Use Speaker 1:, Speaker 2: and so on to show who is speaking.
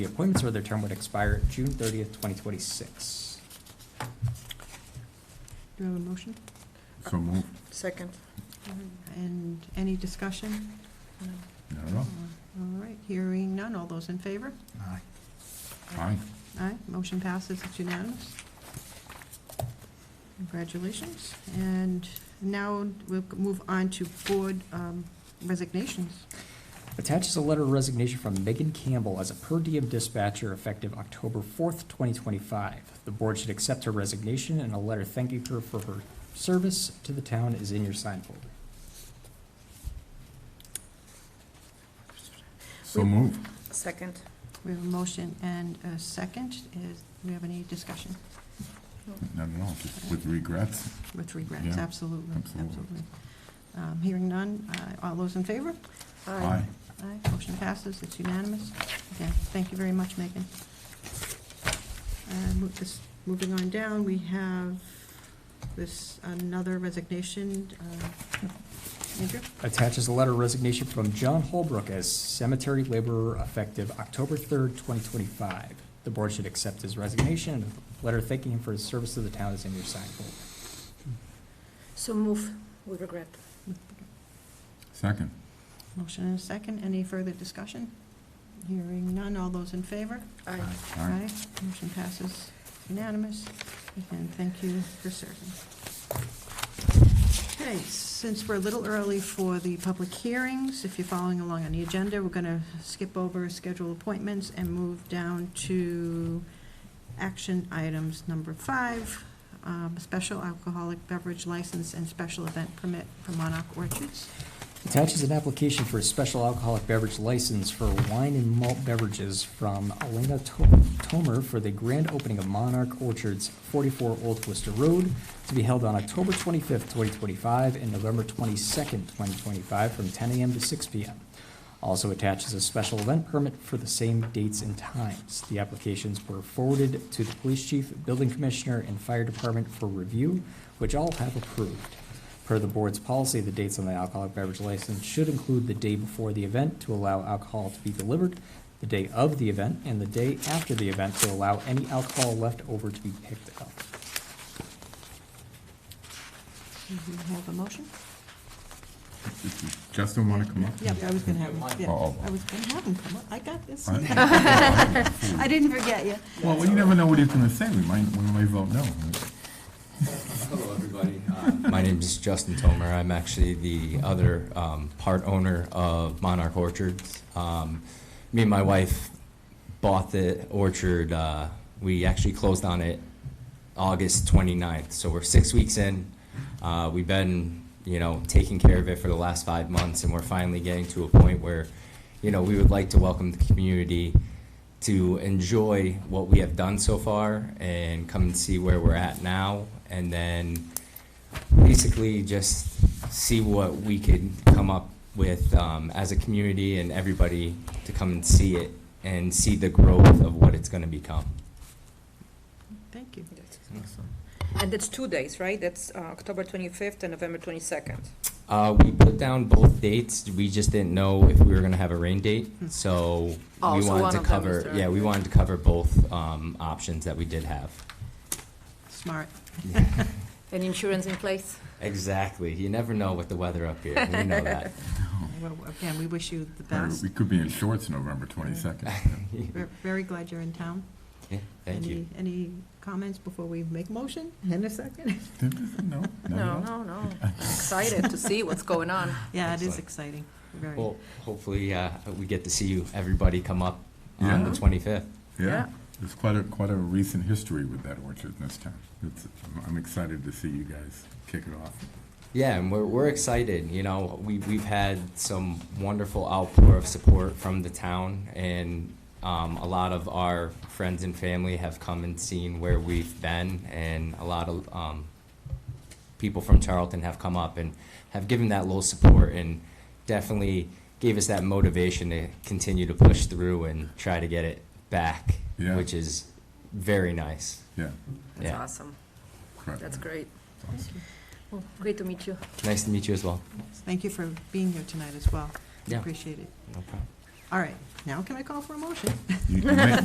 Speaker 1: The appointments where their term would expire June thirtieth, twenty twenty-six.
Speaker 2: Do we have a motion?
Speaker 3: So moved.
Speaker 4: Second.
Speaker 2: And any discussion?
Speaker 3: I don't know.
Speaker 2: All right, hearing none. All those in favor?
Speaker 1: Aye.
Speaker 3: Aye.
Speaker 2: Aye, motion passes. It's unanimous. Congratulations. And now we'll move on to board um, resignations.
Speaker 1: Attaches a letter of resignation from Megan Campbell as a per diem dispatcher effective October fourth, twenty twenty-five. The board should accept her resignation and a letter thanking her for her service to the town is in your sign folder.
Speaker 3: So moved.
Speaker 4: Second.
Speaker 2: We have a motion and a second. Is, do we have any discussion
Speaker 3: I don't know, just with regrets.
Speaker 2: with regrets?
Speaker 3: Yeah,
Speaker 2: Absolutely,
Speaker 3: absolutely.
Speaker 2: absolutely. Um, Hearing none. Uh, All those in favor?
Speaker 3: Aye.
Speaker 2: Aye, motion passes, it's unanimous. Again, thank you very much, Megan. Uh, mo- this- Moving on down, we have this, another resignation. uh, Andrew,
Speaker 1: Attaches a letter of resignation from John Holbrook as cemetery laborer effective October third, twenty twenty-five. The board should accept his resignation and a letter thanking him for his service to the town is in your sign folder.
Speaker 4: So move with regret.
Speaker 3: Second.
Speaker 2: motion and a second, any further discussion? Hearing none, all those in favor?
Speaker 4: Aye.
Speaker 3: Aye.
Speaker 2: Motion passes unanimous, and thank you for serving. Okay, since we're a little early for the public hearings, if you're following along on the agenda, we're going to skip over scheduled appointments and move down to action items number five, um, special alcoholic beverage license and special event permit for Monarch Orchards.
Speaker 1: Attaches an application for a special alcoholic beverage license for wine and malt beverages from Elena To- Tomer for the grand opening of Monarch Orchards, 44 Old Worcester Road, to be held on October 25th, 2025, and November 22nd, 2025, from 10 a.m. to 6 p.m. Also attaches a special event permit for the same dates and times. The applications were forwarded to the police chief, building commissioner, and fire department for review, which all have approved. Per the board's policy, the dates on the alcoholic beverage license should include the day before the event to allow alcohol to be delivered, the day of the event, and the day after the event to allow any alcohol left over to be picked up.
Speaker 2: Do you have a motion?
Speaker 3: Does Justin want to come up?
Speaker 2: Yeah, I was going to have, him, yeah,
Speaker 3: Oh.
Speaker 2: I was going to have him come up, I got this. I
Speaker 3: Aye.
Speaker 2: didn't forget you.
Speaker 3: Well, we never know what he's going to say. We might, we might vote no.
Speaker 5: Hello, everybody. Uh, My name is Justin Tomer. I'm actually the other um, part owner of Monarch Orchards. Um, Me and my wife bought the orchard, uh, we actually closed on it August 29th, so we're six weeks in. Uh, We've been, you know, taking care of it for the last five months, and we're finally getting to a point where, you know, we would like to welcome the community to enjoy what we have done so far and come and see where we're at now, and then basically just see what we could come up with um, as a community and everybody to come and see it and see the growth of what it's going to become.
Speaker 2: Thank you.
Speaker 4: And that's two days, right? That's uh, October 25th and November 22nd.
Speaker 5: Uh, we put down both dates. We just didn't know if we were going to have a rain date, so
Speaker 4: Oh,
Speaker 5: we
Speaker 4: so
Speaker 5: wanted
Speaker 4: Hmm. one
Speaker 5: to
Speaker 4: of them is
Speaker 5: cover.
Speaker 4: during
Speaker 5: Yeah,
Speaker 4: the
Speaker 5: we
Speaker 4: day.
Speaker 5: wanted to cover both um, options that we did have.
Speaker 2: Smart.
Speaker 4: And insurance in place?
Speaker 5: Exactly. You never know with the weather up here. We know that.
Speaker 2: Well, again, we wish you the
Speaker 3: Or
Speaker 2: best.
Speaker 3: We could be in shorts November 22nd.
Speaker 2: We're very glad you're in town.
Speaker 5: Yeah, thank
Speaker 2: Any-
Speaker 5: you.
Speaker 2: Any comments before we make motion in a second?
Speaker 3: No? not at
Speaker 6: No,
Speaker 3: all?
Speaker 6: no, no. I'm Excited to see what's going on.
Speaker 2: Yeah, it is
Speaker 5: Excellent.
Speaker 2: exciting, very.
Speaker 5: Well, hopefully uh, we get to see you everybody come up on
Speaker 3: Yeah.
Speaker 5: the 25th.
Speaker 3: Yeah.
Speaker 6: Yeah.
Speaker 3: There's quite a, quite a recent history with that orchard in this town. It's, I'm excited to see you guys kick it off.
Speaker 5: Yeah, and we're, we're excited. You know, we, we've had some wonderful outpour of support from the town, and um, a lot of our friends and family have come and seen where we've been, and a lot of um, people from Charlton have come up and have given that little support and definitely gave us that motivation to continue to push through and try to get it back,
Speaker 3: Yeah.
Speaker 5: which is very nice.
Speaker 3: Yeah.
Speaker 6: That's
Speaker 5: Yeah.
Speaker 6: awesome.
Speaker 3: correct.
Speaker 6: That's great.
Speaker 4: Well, Great to meet you.
Speaker 5: Nice to meet you as well.
Speaker 2: Thank you for being here tonight as well.
Speaker 5: Yeah.
Speaker 2: Appreciate it.
Speaker 5: No problem.
Speaker 2: All right, now can I call for a motion?
Speaker 3: You can make-